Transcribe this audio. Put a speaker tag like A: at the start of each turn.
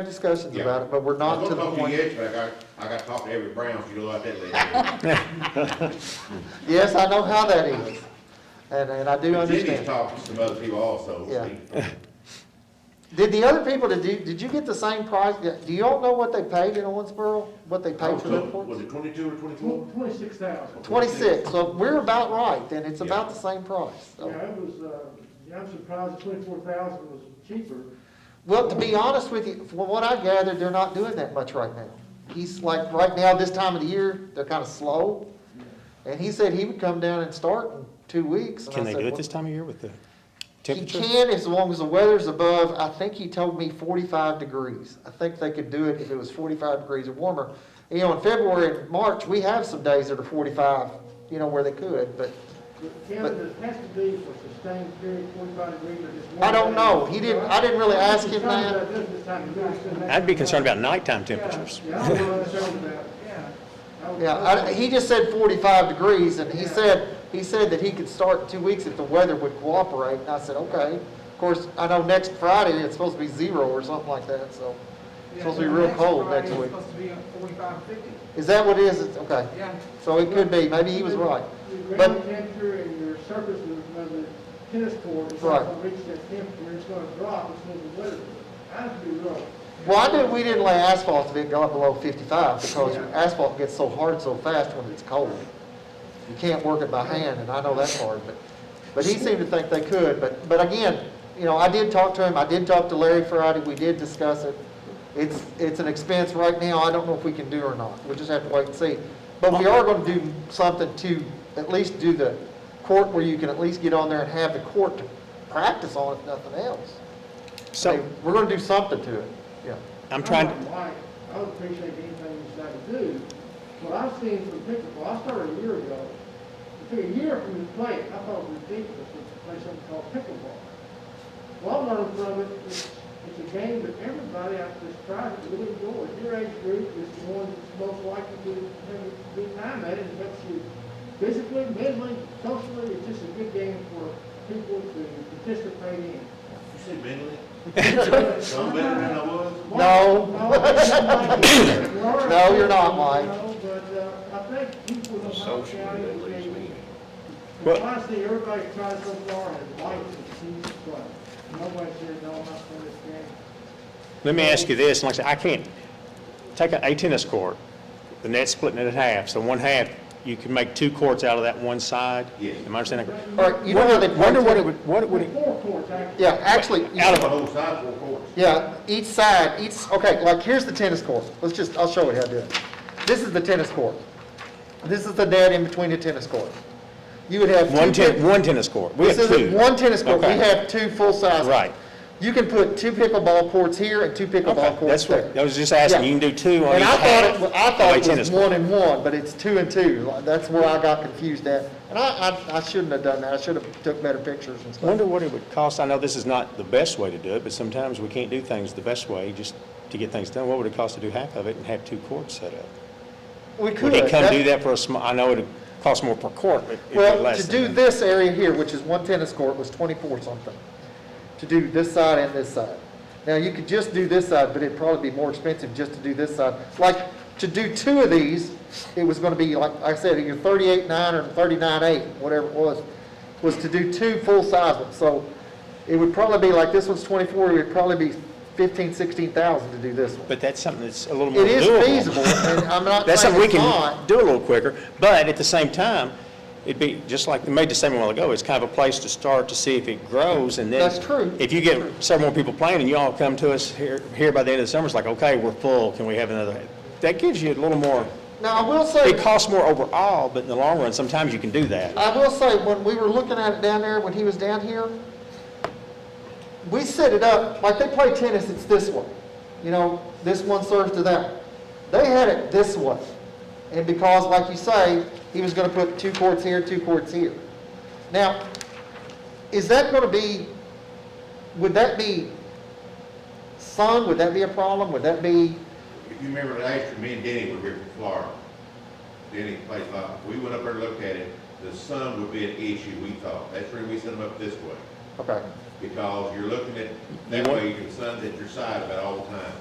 A: had discussions
B: Yeah.
A: about it, but we're not to
B: I
A: the
B: was gonna talk to
A: point.
B: you yesterday, but I got, I got to talk to every Brown, so you know about that lady.
A: Yes, I know how that is. And, and I do
B: Jimmy's
A: understand.
B: talked to some other people also.
A: Yeah. Did the other people, did you, did you get the same price? Do you all know what they paid in Owensboro? What they
B: I
A: paid
B: was
A: for their
B: told, was
A: ports?
B: it twenty-two or
A: Hmm.
B: twenty-four?
C: Twenty-six thousand.
A: Twenty-six, so we're about right, then. It's
B: Yeah.
A: about the same price.
C: Yeah,
A: so.
C: it was, uh, yeah, I'm surprised twenty-four thousand was cheaper.
A: Well, to be honest with you, from what I gathered, they're not doing that much right now. He's like, right now, this time of the year, they're kind of slow. And he said he would come down and start in two weeks. and I
D: Can they
A: said,
D: do it
A: "Well,
D: this time of year with the
A: He
D: temperature?
A: can as long as the weather's above, I think he told me forty-five degrees. I think they could do it if it was forty-five degrees or warmer. You know, in February and March, we have some days that are forty-five, you know, where they could, but
C: But Kevin, it has to be for sustained period, forty-five degrees or just one.
A: I don't
C: day.
A: know. He didn't, I didn't really ask him
C: Sometimes
A: that.
C: that does this time of year, it's been that
D: I'd be concerned
C: time.
D: about nighttime temperatures.
C: Yeah, I was concerned about, yeah. I was-
A: Yeah, I, he just said forty-five degrees, and he said, he said that he could start in two weeks if the weather would cooperate, and I said, okay. Of course, I know next Friday, it's supposed to be zero or something like that, so it's supposed to be real cold next week.
E: Supposed to be at 45, 50.
A: Is that what it is? It's- Okay,
E: Yeah.
A: so it could be, maybe he was right.
C: Your ground
A: But,
C: temperature and your surface of of the tennis court, it's
A: Right.
C: not gonna reach that temperature, it's gonna drop, it's gonna be weather. I'd be wrong.
A: well, I knew we didn't lay asphalt if it got below fifty-five, because asphalt gets so hard so fast when it's cold. You can't work it by hand, and I know that's hard, but, but he seemed to think they could, but, but again, you know, I did talk to him, I did talk to Larry Friday, we did discuss it. It's, it's an expense right now, I don't know if we can do or not, we just have to wait and see. But we are gonna do something to at least do the court where you can at least get on there and have the court to practice on if nothing else.
D: So
A: We're gonna do something to it, yeah.
D: I'm trying,
C: I'm like, Oh, I would appreciate anything you decide to do. What I've seen from pickleball, I started a year ago. It took a year for me to play it. I thought it was ridiculous to play something called pickleball. Well, I learned from it, it's, it's a game that everybody out this tribe really enjoys. Your age group is the one that's most likely to have a good time at it. It helps you physically, mentally, socially. It's just a good game for people to participate in.
B: You said mentally? Some better than I was?
A: No. No,
C: No,
A: you're not, Mike.
C: But uh, I think people in Humboldt
F: Socially,
C: County,
F: that leaves me.
C: they, I see everybody trying so far and likes it, seems to play. Nobody says, no, I'm not playing this game.
D: let me ask you this, and like I said, I can't, take a a tennis court, the net's splitting it in half, so one half, you can make two courts out of that one side?
B: Yes.
D: Am I understanding? correctly?
A: All right, you know how they.
D: Wonder what it would, what it
C: There's
D: would,
C: four courts, actually.
A: Yeah, actually, you-
D: Out
B: The
D: of-
B: whole side four courts.
A: yeah, each side, each, okay, like here's the tennis court. Let's just, I'll show you how to do it. This is the tennis court. This is the net in between the tennis court. You would have. two
D: one ten,
A: pin-
D: one tennis court, we have
A: This
D: two.
A: is one tennis court. We
D: Okay.
A: have two full-size.
D: Right.
A: You can put two pickleball courts here and two pickleball
D: Okay,
A: courts
D: that's
A: there.
D: what, I was just asking,
A: Yeah.
D: you can do two on each
A: And I thought,
D: half
A: it wa- I
D: of a
A: thought it
D: tennis
A: was
D: court.
A: one and one, but it's two and two. Like, That's where I got confused at. And I, I, I shouldn't have done that. I should have took better pictures and stuff.
D: Wonder what it would cost, I know this is not the best way to do it, but sometimes we can't do things the best way, just to get things done, what would it cost to do half of it and have two courts set up?
A: We could.
D: Would he come do
A: That-
D: that for a sm, I know it'd cost more per court, but it'd be
A: Well,
D: less
A: to
D: than
A: do
D: that.
A: this area here, which is one tennis court, was twenty-four something. To do this side and this side. Now, you could just do this side, but it'd probably be more expensive just to do this side. Like, to do two of these, it was gonna be, like I said, either thirty-eight nine or thirty-nine eight, whatever it was, was to do two full-size ones. So it would probably be, like, this one's twenty-four, it would probably be fifteen, sixteen thousand to do this one.
D: But that's something that's a little more
A: It is
D: doable.
A: feasible, and I'm not
D: That's
A: saying
D: something we
A: it's not.
D: can do a little quicker, but at the same time, it'd be, just like we made the same a while ago, it's kind of a place to start to see if it grows and then.
A: That's true.
D: If you get several more people playing and you all come to us here, here by the end of the summer, it's like, okay, we're full, can we have another? That gives you a little more,
A: Now, I will say.
D: it costs more overall, but in the long run, sometimes you can do that.
A: I will say, when we were looking at it down there, when he was down here, we set it up, like they play tennis, it's this way. You know, this one serves to that. They had it this way. And because, like you say, he was gonna put two courts here, two courts here. Now, is that gonna be, would that be sun? Would that be a problem? Would that be,
B: If you remember last year, me and Denny were here from Florida. Denny plays a lot. We went up there and looked at it. The sun would be an issue, we thought. That's where we set them up this way.
A: okay.
B: Because you're looking at, that way you can sun's at your side about all the time.